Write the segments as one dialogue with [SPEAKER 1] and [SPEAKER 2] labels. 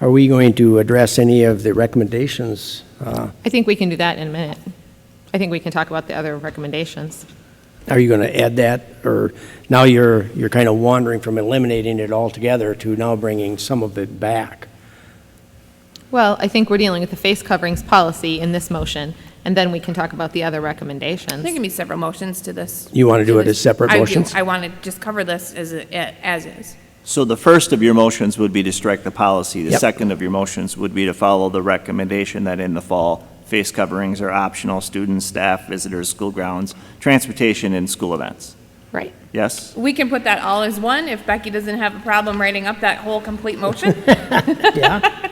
[SPEAKER 1] Are we going to address any of the recommendations? Uh,
[SPEAKER 2] I think we can do that in a minute. I think we can talk about the other recommendations.
[SPEAKER 1] Are you going to add that, or now you're, you're kind of wandering from eliminating it altogether to now bringing some of it back?
[SPEAKER 2] Well, I think we're dealing with the face coverings policy in this motion, and then we can talk about the other recommendations.
[SPEAKER 3] There can be several motions to this.
[SPEAKER 1] You wanna do it as
[SPEAKER 3] this.
[SPEAKER 1] separate
[SPEAKER 3] I do.
[SPEAKER 1] motions?
[SPEAKER 3] I want to just cover this as, it- as is.
[SPEAKER 4] So the first of your motions would be to strike the policy. The
[SPEAKER 1] Yep.
[SPEAKER 4] second of your motions would be to follow the recommendation that in the fall, face coverings are optional, students, staff, visitors, school grounds, transportation, and school events.
[SPEAKER 3] Right.
[SPEAKER 4] Yes?
[SPEAKER 3] We can put that all as one if Becky doesn't have a problem writing up that whole complete motion.
[SPEAKER 1] Yeah.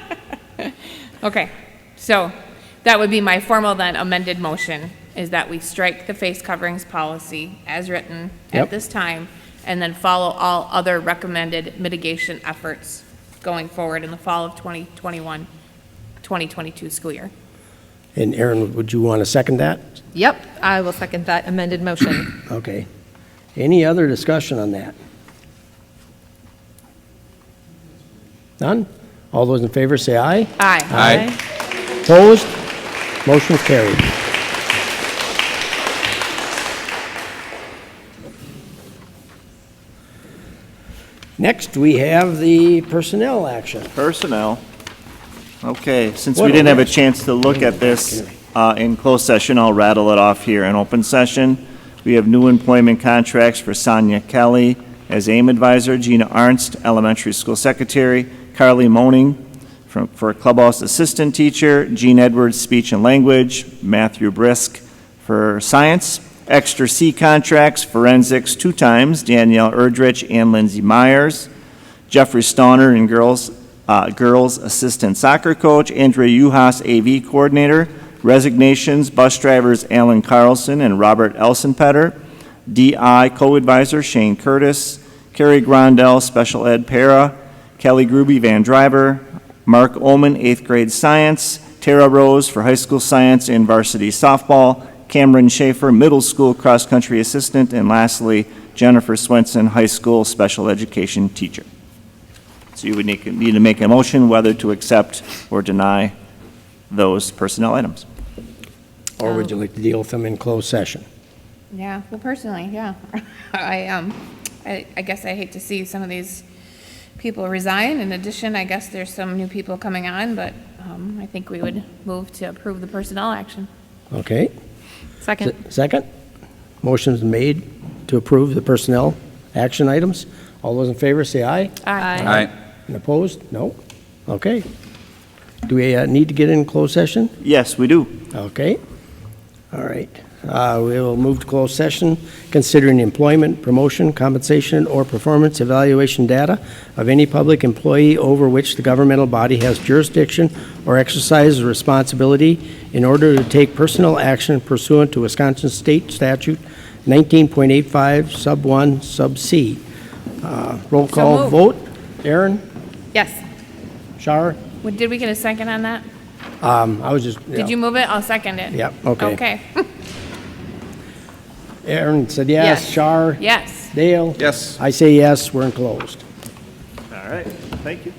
[SPEAKER 3] Okay, so that would be my formal then amended motion, is that we strike the face coverings policy as written
[SPEAKER 1] Yep.
[SPEAKER 3] at this time, and then follow all other recommended mitigation efforts going forward in the fall of 2021, 2022 school year.
[SPEAKER 1] And Aaron, would you want to second that?
[SPEAKER 2] Yep, I will second that amended motion.
[SPEAKER 1] Okay. Any other discussion on that? None? All those in favor say aye.
[SPEAKER 3] Aye.
[SPEAKER 2] Aye.
[SPEAKER 1] Opposed? Motion carried. Next, we have the personnel action.
[SPEAKER 4] Personnel. Okay, since
[SPEAKER 1] What
[SPEAKER 4] we
[SPEAKER 1] a
[SPEAKER 4] didn't have a
[SPEAKER 1] list.
[SPEAKER 4] chance to look at this uh, in closed session, I'll rattle it off here. In open session, we have new employment contracts for Sonia Kelly as AIM advisor, Gina Arnst, elementary school secretary, Carly Moaning from- for clubhouse assistant teacher, Gene Edwards, speech and language, Matthew Brisk for science, extra C contracts, forensics two times, Danielle Erdrich and Lindsay Myers, Jeffrey Stoner and girls, uh, girls assistant soccer coach, Andrea Uhas AV coordinator, resignations, bus drivers Alan Carlson and Robert Elsenpetter, DI co-advisor Shane Curtis, Carrie Grondell, special ed para, Kelly Gruby van Driver, Mark Omen, eighth grade science, Tara Rose for high school science and varsity softball, Cameron Schaefer, middle school cross-country assistant, and lastly, Jennifer Swenson, high school special education teacher. So you would need need to make a motion whether to accept or deny those personnel items.
[SPEAKER 1] Or would you like to deal with them in closed session?
[SPEAKER 3] Yeah, well, personally, yeah. I, um, I, I guess I hate to see some of these people resign. In addition, I guess there's some new people coming on, but, um, I think we would move to approve the personnel action.
[SPEAKER 1] Okay.
[SPEAKER 2] Second.
[SPEAKER 1] Second? Motion's made to approve the personnel action items. All those in favor say aye.
[SPEAKER 3] Aye.
[SPEAKER 1] And opposed? No? Okay. Do we uh, need to get in closed session?
[SPEAKER 4] Yes, we do.
[SPEAKER 1] Okay. All right. Uh, We will move to closed session considering employment, promotion, compensation, or performance evaluation data of any public employee over which the governmental body has jurisdiction or exercises responsibility in order to take personal action pursuant to Wisconsin State Statute 19.85, Sub 1, Sub C. Uh, Roll call vote.
[SPEAKER 3] moved.
[SPEAKER 1] Aaron?
[SPEAKER 2] Yes.
[SPEAKER 1] Shar?
[SPEAKER 3] What- Did we get a second on that?
[SPEAKER 1] Um, I was just, yeah.
[SPEAKER 3] Did you move it? I'll second it.
[SPEAKER 1] Yep, okay.
[SPEAKER 3] Okay,
[SPEAKER 1] Aaron said yes.
[SPEAKER 3] Yes.
[SPEAKER 1] Shar?
[SPEAKER 3] yes.
[SPEAKER 1] Dale?
[SPEAKER 5] Yes.
[SPEAKER 1] I say yes, we're enclosed.
[SPEAKER 4] All right, thank you.